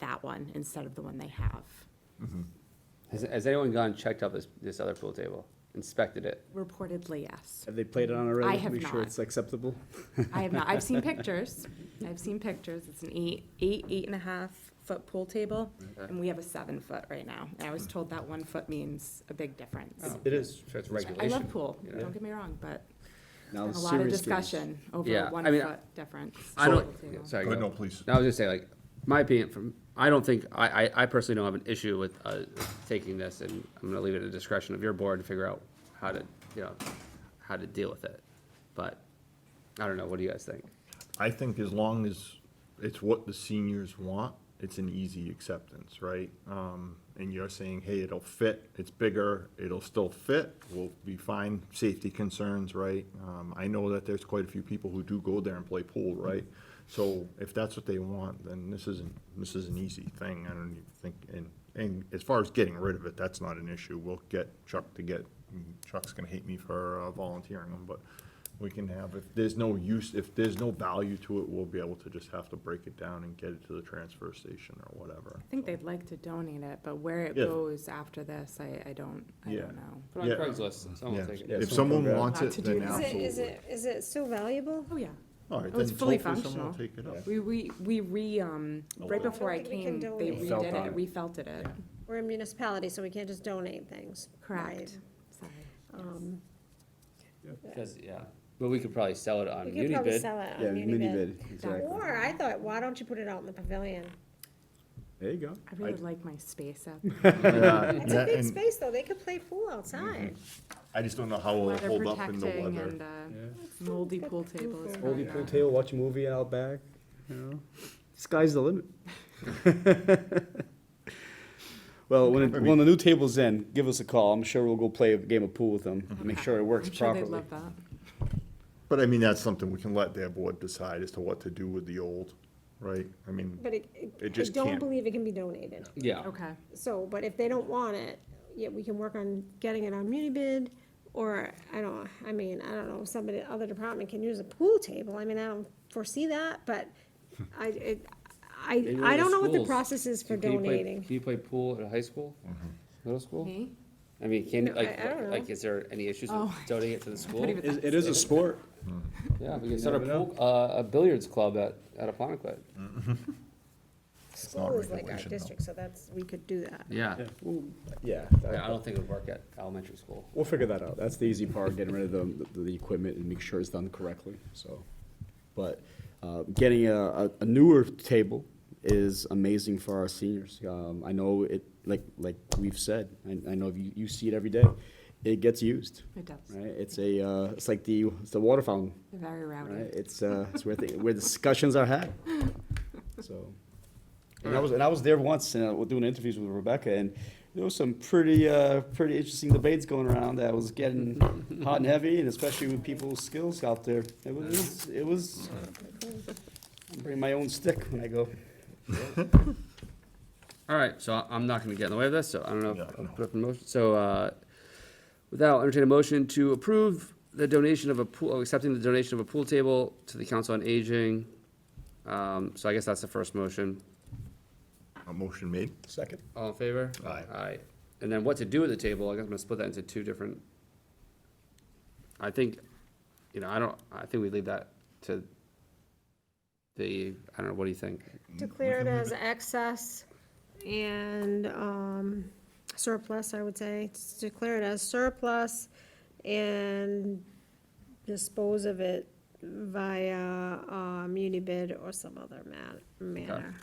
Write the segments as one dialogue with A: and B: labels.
A: that one instead of the one they have.
B: Has, has anyone gone and checked out this, this other pool table, inspected it?
A: Reportedly, yes.
C: Have they played it on already?
A: I have
C: Make sure
A: not.
C: it's acceptable?
A: I have not, I've seen pictures, I've seen pictures, it's an eight, eight, eight and a half foot pool table, and we have a seven foot right now, and I was told that one foot means a big difference.
C: Oh.
D: It is.
B: So it's
A: I
B: regulation.
A: love pool,
B: you know.
A: don't get me wrong, but
C: Now,
A: there's a lot of
C: serious things.
A: discussion over
B: Yeah,
A: a
B: I
A: one
B: mean,
A: foot difference.
B: I don't,
A: Pool table.
B: sorry.
D: Go ahead,
B: go.
D: no, please.
B: No, I was just saying, like, my opinion from, I don't think, I, I, I personally don't have an issue with, uh, taking this and I'm gonna leave it at the discretion of your board to figure out how to, you know, how to deal with it. But, I don't know, what do you guys think?
D: I think as long as it's what the seniors want, it's an easy acceptance, right? Um, and you're saying, hey, it'll fit, it's bigger, it'll still fit, we'll be fine, safety concerns, right? Um, I know that there's quite a few people who do go there and play pool, right? So if that's what they want, then this isn't, this is an easy thing, I don't even think, and, and as far as getting rid of it, that's not an issue, we'll get Chuck to get, Chuck's gonna hate me for uh, volunteering him, but we can have, if there's no use, if there's no value to it, we'll be able to just have to break it down and get it to the transfer station or whatever.
A: I think they'd like to donate it, but where it
D: Yeah.
A: goes after this, I, I don't, I
D: Yeah.
A: don't know.
B: Put on
D: Yeah.
B: Craigslist, someone will take
D: Yeah,
B: it.
D: If someone wants
A: Not
D: it,
A: to do
D: then
A: this.
E: Is it,
D: absolutely.
E: is it, is it still valuable?
A: Oh, yeah.
D: All right,
A: Oh, it's
D: then
A: fully
D: hopefully someone will
A: functional.
D: take it up.
A: We, we, we re, um, right
D: don't
A: before I
E: think Oh, we can
A: came, they
E: donate.
C: Felt
A: redid
C: on
A: it,
C: it.
A: refelted it.
E: We're a municipality, so we can't just donate things. right?
A: Correct. Sorry.
E: Um,
B: Cause, yeah, but we could probably sell it on
E: We could probably
B: Unibid.
E: sell it
C: Yeah,
E: on
C: mini
E: Unibid.
C: bid, exactly.
E: Or I thought, why don't you put it out in the pavilion?
C: There you go.
A: I really
D: I'd-
A: like my space out there.
E: It's a
D: Yeah,
E: big
D: and Mm-hmm.
E: space, though, they could play pool outside.
D: I just don't know how it'll
A: Weather
D: hold up in the
A: protecting and,
D: weather.
A: uh, moldy pool table is probably
C: Oldie pool
A: not.
C: table, watch a movie out back, you know, sky's the limit. Well, when, it- when the new table's in, give us a call, I'm sure we'll go play a game of pool with them, and make sure it works
A: I'm sure
C: properly.
A: they'd love that.
D: But I mean, that's something we can let their board decide as to what to do with the old, right? I mean,
E: But it,
D: It
E: I
D: just
E: don't
D: can't.
E: believe it can be donated.
B: Yeah,
A: Okay,
E: So, but if they don't want it, yeah, we can work on getting it on Unibid, or, I don't, I mean, I don't know, somebody, other department can use a pool table, I mean, I don't foresee that, but I, it, I,
B: Maybe one
E: I
B: of
E: don't know what the
B: schools.
E: process is for
B: Can you play-
E: donating.
B: Can you play pool at a high school,
D: Mm-hmm.
B: middle school?
A: me?
B: I mean, can,
E: No,
B: like,
E: I- I don't know.
B: like, is there any issues with
A: Oh.
B: donating it to the school?
A: even-
C: It it is a sport.
B: Yeah, we can start a pool, uh, a billiards club at, at Aponicut.
D: not
E: School is like our
D: regulation, though.
E: district, so that's, we could do that.
B: Yeah.
C: Yeah,
B: I don't think it would work at elementary school.
C: we'll figure that out. That's the easy part, getting rid of the, the, the equipment and make sure it's done correctly, so. But, uh, getting a, a- a newer table is amazing for our seniors. Um, I know it, like, like we've said, I, I know you, you see it every day. It gets used,
A: It does.
C: right? It's a, uh, it's like the, it's the water fountain,
A: They're Very
C: right?
A: rowdy.
C: It's, uh, it's where, the- where discussions are had, so. And I was, and I was there once, and I was doing interviews with Rebecca, and there was some pretty, uh, pretty interesting debates going around that was getting hot and heavy, and especially with people's skills out there. It was, it was, I bring my own stick when I go.
B: All right, so I- I'm not gonna get in the way of this, so I don't know, if
D: Yeah,
B: I'll
D: no.
B: put up a motion, so, uh, without entertain a motion to approve the donation of a pool, oh, accepting the donation of a pool table to the Council on Aging. Um, so I guess that's the first motion.
D: A motion made?
C: Second.
B: All in favor?
D: Aye.
B: Aye. And then what to do with the table, I guess I'm gonna split that into two different. I think, you know, I don't, I think we leave that to the, I don't know, what do you think?
E: Declare it as excess and, um, surplus, I would say, declare it as surplus and dispose of it via, um, Unibid or some other man, manner.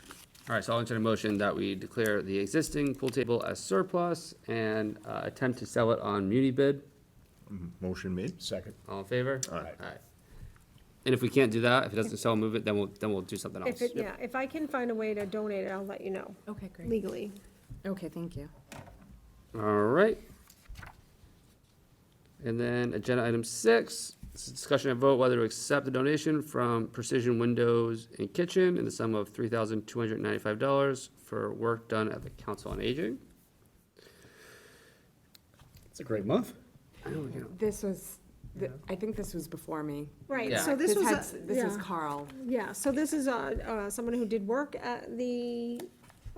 B: All right, so I'll entertain a motion that we declare the existing pool table as surplus and uh, attempt to sell it on muni bid.
D: Motion made?
C: Second.
B: All in favor?
D: Aye.
B: And if we can't do that, if it doesn't sell, move it, then we'll, then we'll do something else.
E: If it, yeah, if I can find a way to donate it, I'll let you know
A: Okay, great.
E: legally.
A: Okay, thank you.
B: All right. And then agenda item six, this is discussion and vote whether to accept the donation from Precision Windows and Kitchen in the sum of three thousand two hundred ninety-five dollars for work done at the Council on Aging.
C: It's a great month.
A: This was, th- I think this was before me. Uh,
E: Right,
B: Yeah.
E: so this was,
A: had
E: a-
A: s- This is
E: yeah,
A: Carl.
E: yeah, so this is, uh, uh, someone who did work at the